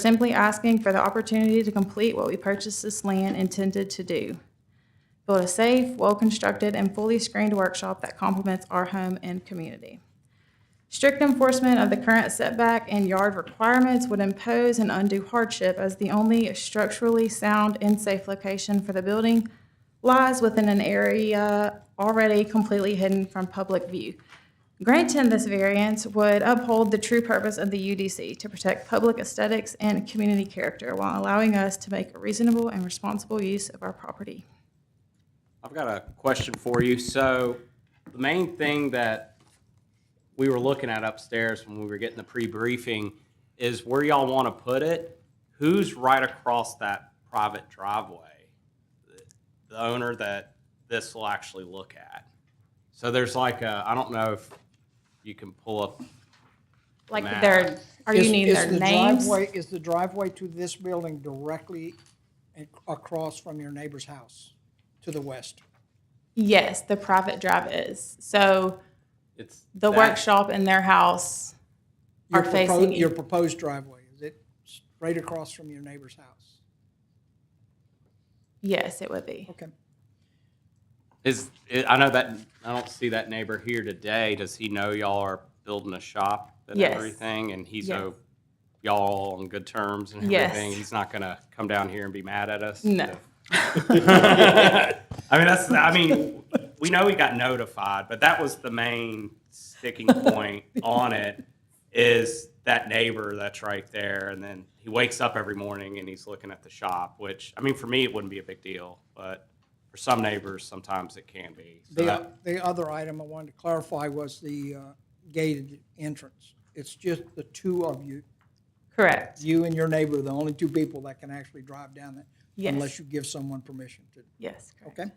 simply asking for the opportunity to complete what we purchased this land intended to do. Build a safe, well-constructed, and fully screened workshop that complements our home and community. Strict enforcement of the current setback and yard requirements would impose an undue hardship as the only structurally sound and safe location for the building lies within an area already completely hidden from public view. Granting this variance would uphold the true purpose of the UDC to protect public aesthetics and community character while allowing us to make a reasonable and responsible use of our property. I've got a question for you. So the main thing that we were looking at upstairs when we were getting the pre-briefing is where y'all want to put it. Who's right across that private driveway? The the owner that this will actually look at. So there's like a, I don't know if you can pull up, Like Map. their, are you Is- needing is their the names? driveway- Is the driveway to this building directly ac- across from your neighbor's house to the west? Yes, the private drive is. So it's. the that- workshop and their house Your are propo- facing. Your each- proposed driveway, is it straight across from your neighbor's house? Yes, it would be. Okay. Is, I know that, I don't see that neighbor here today. Does he know y'all are building a shop and Yes. everything? And he's, Yes. o- y'all on good terms and Yes. everything? He's not gonna come down here and be mad at us? No. I mean, that's, I mean, we know we got notified, but that was the main sticking point on it is that neighbor that's right there. And then he wakes up every morning and he's looking at the shop, which, I mean, for me, it wouldn't be a big deal, but for some neighbors, sometimes it can be. So The, that- o- the other item I wanted to clarify was the uh, gated entrance. It's just the two of you, Correct. you and your neighbor, are the only two people that can actually drive down it Yes. unless you give someone permission to, Yes. correct. okay?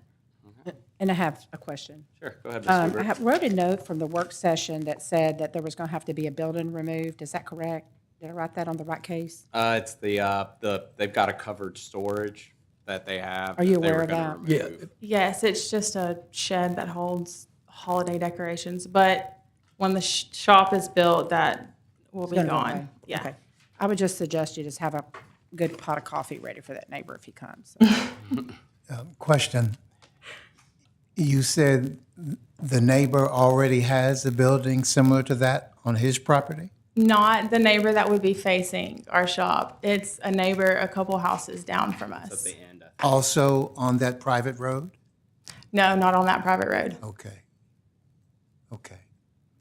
And I have a question. Sure, go ahead, Ms. Um, I Lieber. have- wrote a note from the work session that said that there was going to have to be a building removed. Is that correct? Did I write that on the right case? Uh, it's the, uh, the, they've got a covered storage that they have. Are you that they were aware of gonna that? remove. Yes, it's just a shed that holds holiday decorations, but when the sh- shop is built, that will be Gonna go gone. away. Yeah. Okay. I would just suggest you just have a good pot of coffee ready for that neighbor if he comes. Question. You said the neighbor already has a building similar to that on his property? Not the neighbor that would be facing our shop. It's a neighbor a couple houses down from us. The end. Also on that private road? No, not on that private road. Okay. Okay.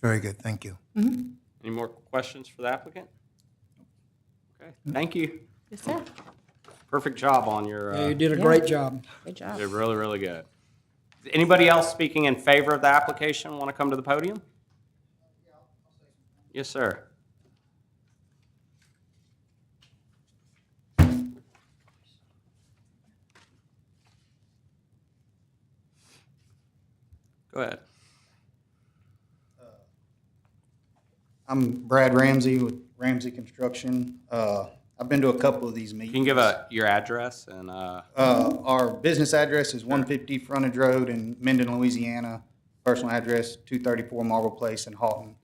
Very good, thank you. Any more questions for the applicant? Okay, thank you. Yes, sir. Perfect job on your, Yeah, uh, You did a great job. Good job. did really, really good. Is Anybody else speaking in favor of the application want to come to the podium? Yes, sir. Go ahead. I'm Brad Ramsey with Ramsey Construction. Uh, I've been to a couple of these You meetings. can give a, your address and, uh, Uh, Our business address is 150 Frontage Road in Mendon, Louisiana. Personal address, 234 Marble Place in Halton.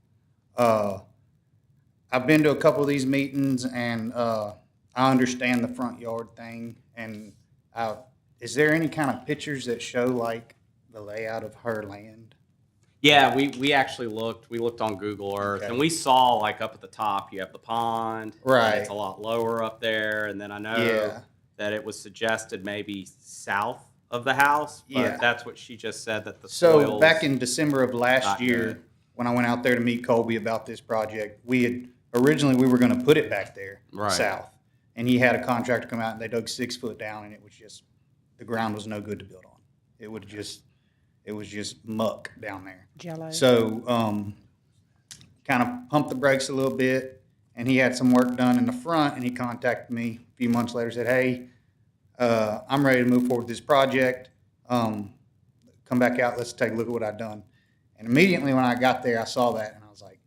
Uh, I've been to a couple of these meetings, and uh, I understand the front yard thing. And uh, is there any kind of pictures that show like the layout of her land? Yeah, we, we actually looked, we looked on Google Earth and Okay. we saw like up at the top, you have the pond. and Right. It's a lot lower up there. And then I know Yeah. that it was suggested maybe south of the house, Yeah. but that's what she just said that the So soils. back in December of not last good. year, when I went out there to meet Colby about this project, we had, originally, we were gonna put it back there, Right. south. And he had a contractor come out and they dug six foot down and it was just, the ground was no good to build on. It would just, it was just muck down there. Jello. So, um, kind of pumped the brakes a little bit, and he had some work done in the front, and he contacted me a few months later, said, hey, uh, I'm ready to move forward with this project. Um, come back out, let's take a look at what I've done. And immediately when I got there, I saw that, and I was like,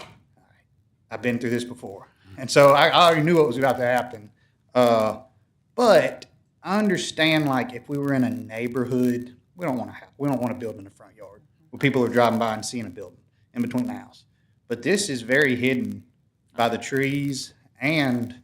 "All right, I've been through this before. And so I, I already knew what was about to happen. Uh, but I understand, like, if we were in a neighborhood, we don't want to have, we don't want to build in the front yard where people are driving by and seeing a building in between the house. But this is very hidden by the trees and